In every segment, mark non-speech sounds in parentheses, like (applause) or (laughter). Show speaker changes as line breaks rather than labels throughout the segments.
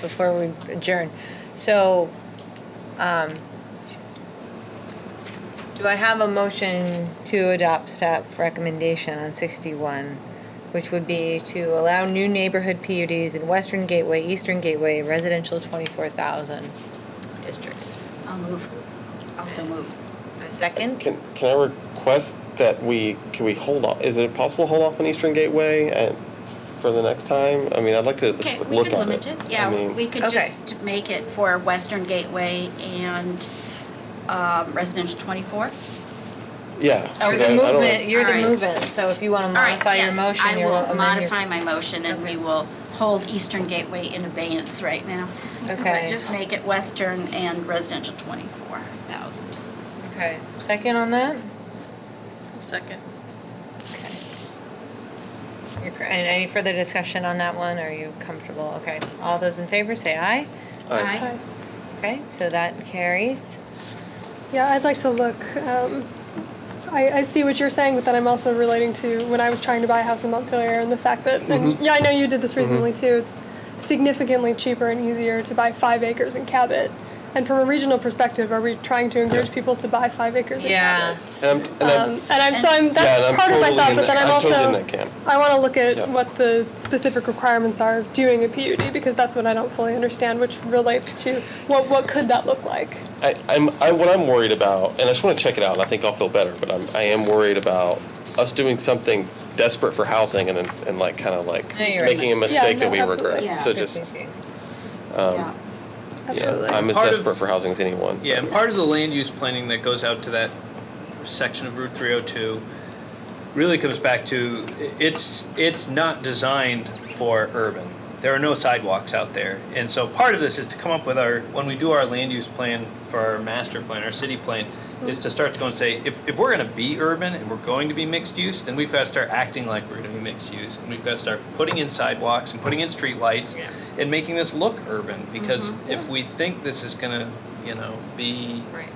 before we adjourn. So, um, do I have a motion to adopt staff recommendation on sixty-one, which would be to allow new neighborhood PUDs in Western Gateway, Eastern Gateway, residential twenty-four thousand districts?
I'll move. Also move.
A second?
Can, can I request that we, can we hold off, is it possible to hold off on Eastern Gateway and, for the next time? I mean, I'd like to
Okay,
just look at it.
we could limit it.
I
Yeah,
mean,
we could
Okay.
just make it for Western Gateway and um, residential 24.
Yeah. 'cause
You're
I- I
Oh,
the
don't-
movement, you're the
All right.
movement, so if you wanna
All right,
modify your
yes,
motion,
I
you're
will
amend your.
modify my motion and we will hold Eastern Gateway in abeyance right now.
(laughs) Okay.
But Just make it Western and residential 24,000.
Okay, second on that?
Second.
Okay. You're cor- And any further discussion on that one? Are you comfortable? Okay, all those in favor say aye.
I-
Aye.
Okay, so that carries.
Yeah, I'd like to look. Um, I, I see what you're saying, but then I'm also relating to when I was trying to buy a house in Montpelier and the fact that, and
Mm-hmm.
yeah, I know you did this recently too. It's significantly cheaper and easier to buy five acres in Cabot. And from a regional perspective, are we trying to encourage people to buy five acres in
Yeah,
Cabot?
And I'm, and I'm,
Um, and I'm so I'm
yeah,
that's
and I'm
part of my
totally
thought,
in that-
but then I'm,
I'm
also
totally in that camp.
I want to look at
Yeah.
what the specific requirements are of doing a PUD because that's what I don't fully understand, which relates to what what could that look like.
I, I'm, I, what I'm worried about, and I just want to check it out, and I think I'll feel better, but I'm, I am worried about us doing something desperate for housing and then, and like, kind of like
No, you're right.
making a mistake
no,
that we
absolutely.
regret.
Yeah.
So
Good
just,
thinking.
Um, (laughs)
Yeah.
yeah,
Absolutely.
I'm as
Part of-
desperate for housing as anyone.
Yeah, and part of the land use planning that goes out to that section of Route 302 really comes back to i- it's it's not designed for urban. There are no sidewalks out there, and so part of this is to come up with our when we do our land use plan for our master plan, our city plan, is to start to go and say if if we're going to be urban and we're going to be mixed use, then we've got to start acting like we're going to be mixed use, and we've got to start putting in sidewalks and putting in street lights and making this look urban because if we think this is going to you know be
Right.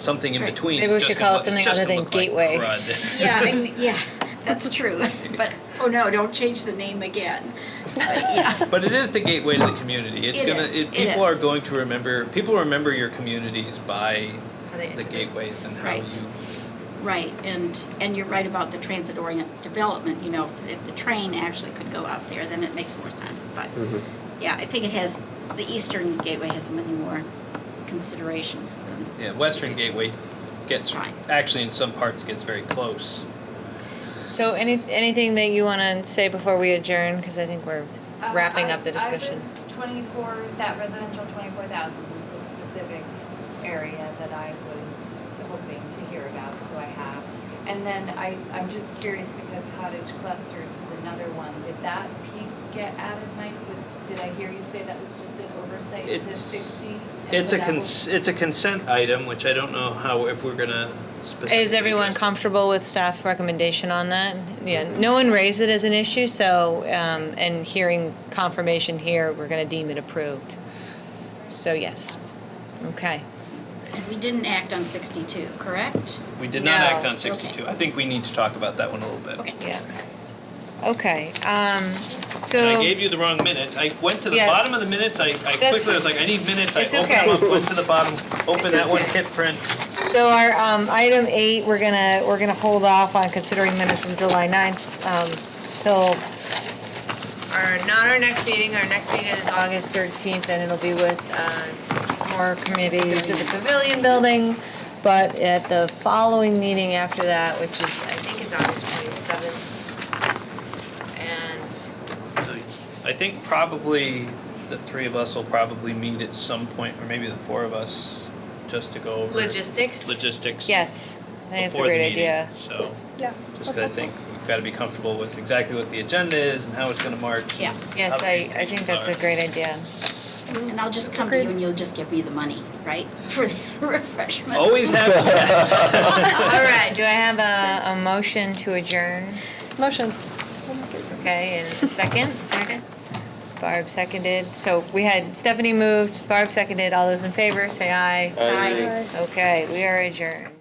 something in
Right.
between
Maybe
it's
we
just
should
gonna
call it
look-
something
it's just
other
gonna
than
look
gateway.
like crud.
Yeah, I
(laughs)
mean, yeah, that's true. (laughs) But, oh no, don't change the name again.
But it is the gateway to the community. It's
It
gonna.
is.
It,
It
people are
is.
going to remember. People remember your communities by
How they
the
integrate.
gateways and how
Right.
you.
Right, and, and you're right about the transit orient development, you know, if, if the train actually could go out there, then it makes more sense, but, yeah, I think it has, the eastern gateway has many more considerations than.
Yeah, Western Gateway gets
Right.
actually in some parts gets very close.
So any, anything that you wanna say before we adjourn, because I think we're
Um,
wrapping
I-
up the
I
discussion.
was twenty-four, that residential twenty-four thousand was the specific area that I was hoping to hear about, so I have. And then I, I'm just curious because cottage clusters is another one, did that piece get added, Mike, was, did I hear you say that was just an oversight to
It's-
sixty?
It's a cons- it's a consent item, which I don't know how if we're gonna. specifically
Is everyone
just-
comfortable with staff recommendation on that? Yeah, no one raised it as an issue, so, um, and hearing confirmation here, we're gonna deem it approved. So yes, okay.
And we didn't act on sixty-two, correct?
We did not
No.
act on
Okay.
62. I think we need to talk about that one a little bit.
Okay.
Yeah. Okay, um,
And I
so,
gave you the wrong minutes. I went to the
Yeah.
bottom of the minutes. I, I quickly was like, I need minutes. I
It's
opened
okay.
them up, went to the bottom, opened
It's
that one,
okay.
hit print.
so our, um, item eight, we're gonna, we're gonna hold off on considering minutes from July ninth, um, till our, not our next meeting, our next meeting is August thirteenth, and it'll be with, uh, more committees at the Pavilion Building, but at the following meeting after that, which is, I think it's August twenty-seventh, and
So I think probably the three of us will probably meet at some point, or maybe the four of us, just to go over
logistics?
logistics
Yes, I think it's a
before the
great
meeting.
idea.
So
Yeah.
just 'cause I think we've got to be comfortable with exactly what the agenda is and how it's going to march. and
Yeah.
Yes,
how
I,
the
I think that's a
meetings are.
great idea.
And I'll just come to you and you'll just give me the money, right, (laughs) for the refreshments?
Always have yes.
All right, do I have a, a motion to adjourn?
Motion.
Okay, and a second?
Second?
Barb seconded. So we had Stephanie moved, Barb seconded. All those in favor, say aye.
I-
Aye.
Aye.
Okay, we are adjourned.